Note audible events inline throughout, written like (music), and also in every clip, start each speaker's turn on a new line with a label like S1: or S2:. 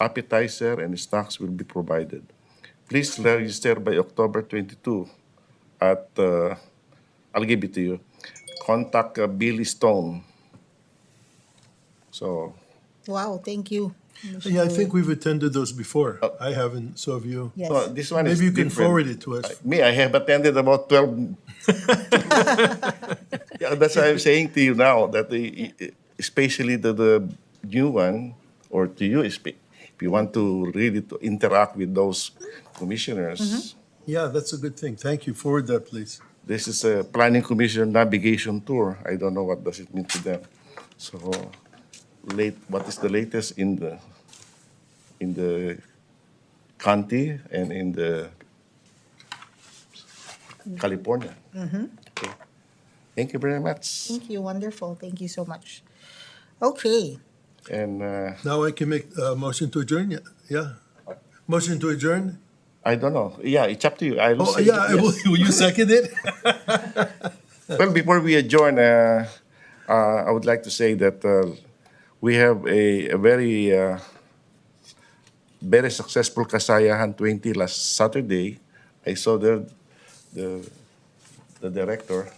S1: appetizer, and snacks will be provided. Please register by October 22 at, uh, I'll give it to you, contact uh, Billy Stone. So,
S2: Wow, thank you. Commissioner
S3: Yeah, I
S2: Wade.
S3: think we've attended those before. I haven't, so have you.
S2: Yes.
S1: so Oh. this one is
S3: Maybe you can
S1: different.
S3: forward it to us.
S1: Me, I have attended about
S3: (laughs)
S1: 12. yeah, that's what I'm saying to you now that the, especially the, the new one, or to you, espe- if you want to really to interact with those commissioners,
S3: Mm-hmm. Yeah, that's a good thing. Thank you. Forward that, please.
S1: this is a planning commission navigation tour. I don't know what does it mean to them. So, late, what is the latest in the in the county and in the California? Okay. Thank you very much.
S2: Thank you, wonderful. Thank you so much. Okay,
S1: And uh,
S3: Now I can make a motion to adjourn, yeah? yeah? Motion to adjourn?
S1: I don't know. Yeah, it's up to you. I will
S3: Oh,
S1: say
S3: yeah, I will
S1: yes.
S3: will you second
S1: (laughs)
S3: it?
S1: Well, before we adjourn, uh, uh, I would like to say that uh, we have a, a very, uh, very successful Kasayahan 20 last Saturday. I saw the, the, the director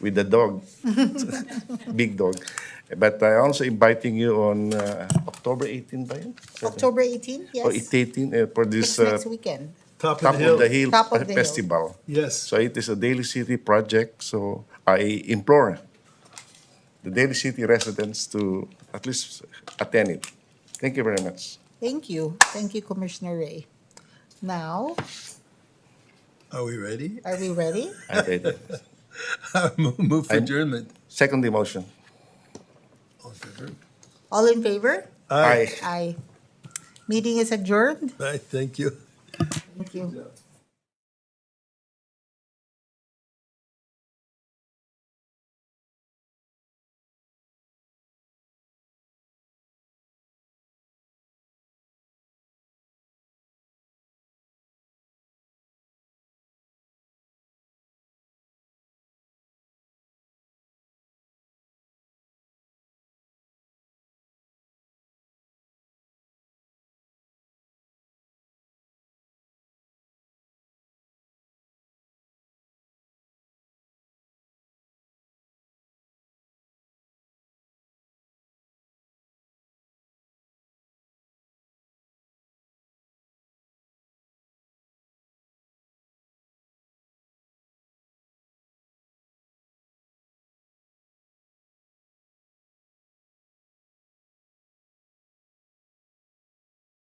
S1: with the dog, (laughs) big dog. But I also inviting you on uh, October 18, by
S2: October 18th,
S1: Or
S2: yes?
S1: 18 uh, for this
S2: It's
S1: uh,
S2: next weekend.
S3: Top
S1: Top of
S3: of
S1: the
S3: the
S1: Hill
S3: hill.
S2: Top of the Hill.
S1: Festival.
S3: Yes,
S1: So it is a Daily City project, so I implore the Daily City residents to at least attend it. Thank you very much.
S2: Thank you. Thank you, Commissioner Ray. Now,
S3: are we ready? (laughs)
S2: are we ready?
S1: I take it.
S3: Move for
S1: I'm-
S3: adjournment.
S1: Second emotion.
S3: All in favor?
S2: All in favor?
S3: Aye.
S2: Aye. Meeting is adjourned.
S3: Aye, thank you.
S2: Thank you.